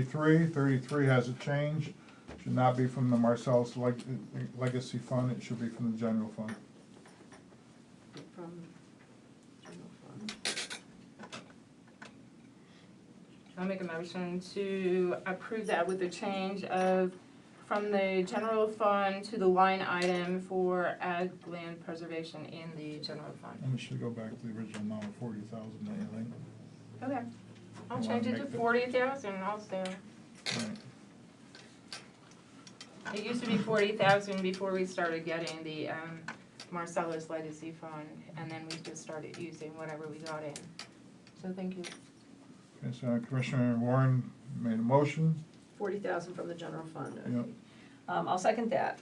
thirty-three, thirty-three has a change, should not be from the Marcellus Leg- Legacy Fund, it should be from the general fund. From general fund. I'll make a motion to approve that with the change of from the general fund to the line item for ag land preservation in the general fund. And it should go back to the original amount of forty thousand, I Okay, I'll You wanna change it to make the- forty thousand also. think. Right. It used to be forty thousand before we started getting the, um, Marcellus Legacy Fund, and then we just started using whatever we got in. So thank you. Okay, so Commissioner Warren made a motion, Forty thousand from the general fund. okay. Yep. Um, I'll second that.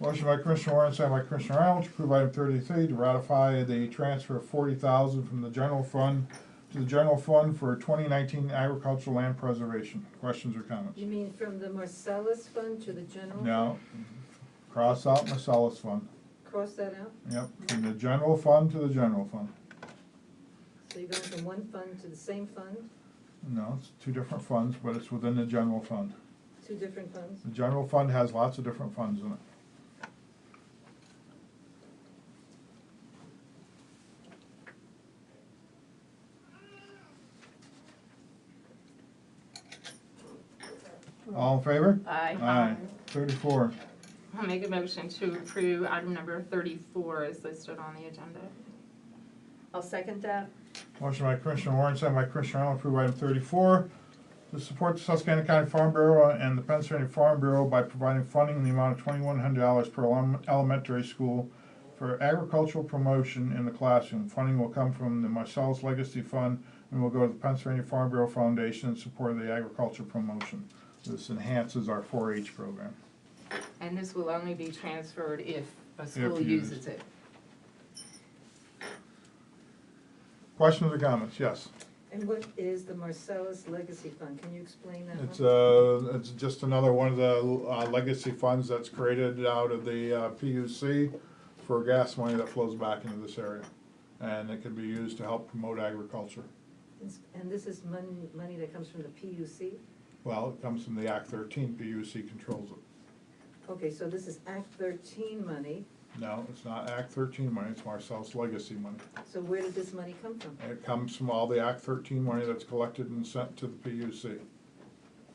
Motion by Commissioner Warren, second by Commissioner Arnold, to approve item thirty-three, to ratify the transfer of forty thousand from the general fund to the general fund for twenty nineteen agricultural land preservation. Questions or comments? You mean from the Marcellus Fund to the general? No. Cross out Marcellus Fund. Cross that out, Yep, from the general fund to the general fund. so you're going from one fund to the same fund, No, it's two different funds, but it's within the general fund. two different funds? The general fund has lots of different funds in it. All in favor? Aye. Aye. Thirty-four. I'll make a motion to approve item number thirty-four is listed on the agenda. I'll second that. Motion by Commissioner Warren, second by Commissioner Arnold, approve item thirty-four. To support the Susquehanna County Farm Bureau and the Pennsylvania Farm Bureau by providing funding in the amount of twenty-one hundred dollars per elem- elementary school for agricultural promotion in the classroom. Funding will come from the Marcellus Legacy Fund and will go to the Pennsylvania Farm Bureau Foundation in support of the agriculture promotion. This enhances our four-H program. And this will only be transferred if a school used. uses it. Questions or comments? Yes. And what is the Marcellus Legacy Fund, can you explain that one? It's uh it's just another one of the uh, legacy funds that's created out of the uh, PUC for gas money that flows back into this area. And it can be used to help promote agriculture. It's- And this is money, money that comes from the PUC? Well, it comes from the Act thirteen, PUC controls it. Okay, so this is Act thirteen money, No, it's not Act thirteen money, it's Marcel's legacy money. so where did this money come from? And it comes from all the Act thirteen money that's collected and sent to the PUC.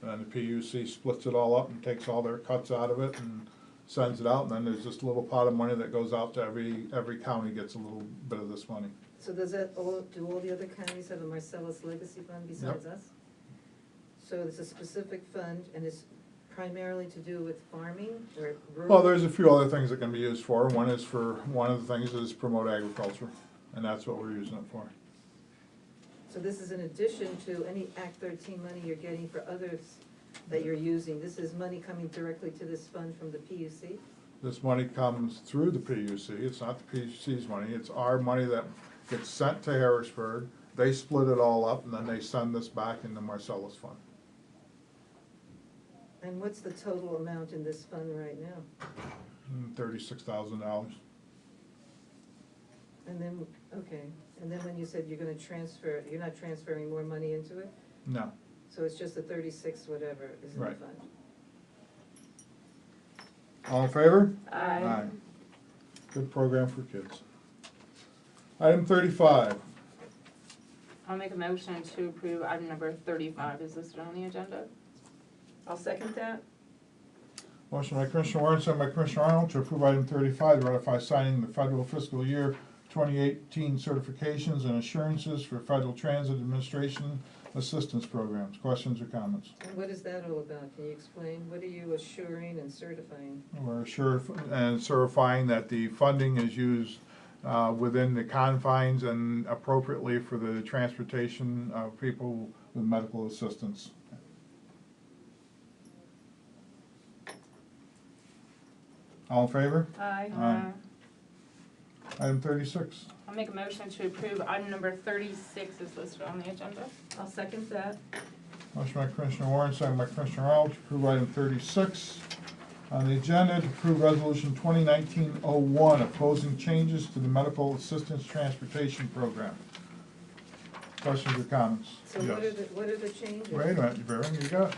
And the PUC splits it all up and takes all their cuts out of it and sends it out, and then there's just a little pot of money that goes out to every, every county gets a little bit of this money. So does that, all, do all the other counties have a Marcellus Legacy Fund besides us? So it's a specific fund and it's primarily to do with farming or rural? Well, there's a few other things it can be used for, one is for, one of the things is promote agriculture, and that's what we're using it for. So this is in addition to any Act thirteen money you're getting for others that you're using. This is money coming directly to this fund from the PUC? This money comes through the PUC, it's not the PUC's money, it's our money that gets sent to Harrisburg. They split it all up, and then they send this back into Marcellus Fund. And what's the total amount in this fund right now? Thirty-six thousand dollars. And then, okay, and then when you said you're gonna transfer, you're not transferring more money into it? No, So it's just the thirty-six whatever is in the Right. fund? all in favor? Aye. Good program for kids. Item thirty-five, I'll make a motion to approve item number thirty-five is listed on the agenda. I'll second that. motion by Commissioner Warren, second by Commissioner Arnold to approve item thirty-five, to ratify signing the federal fiscal year twenty eighteen certifications and assurances for Federal Transit Administration Assistance Programs. Questions or comments? And what is that all about? Can you explain? What are you assuring and certifying? We're sure and certifying that the funding is used uh, within the confines and appropriately for the transportation of people with medical assistance. All in favor? Aye. Aye. Item thirty-six. I'll make a motion to approve item number thirty-six is listed on the agenda. I'll second that. Motion by Commissioner Warren, second by Commissioner Arnold, to approve item thirty-six on the agenda, to approve resolution 2019-01 opposing changes to the medical assistance transportation program. Questions or comments? So what are Yes. the, what are the changes? Wait a minute, Vera, you got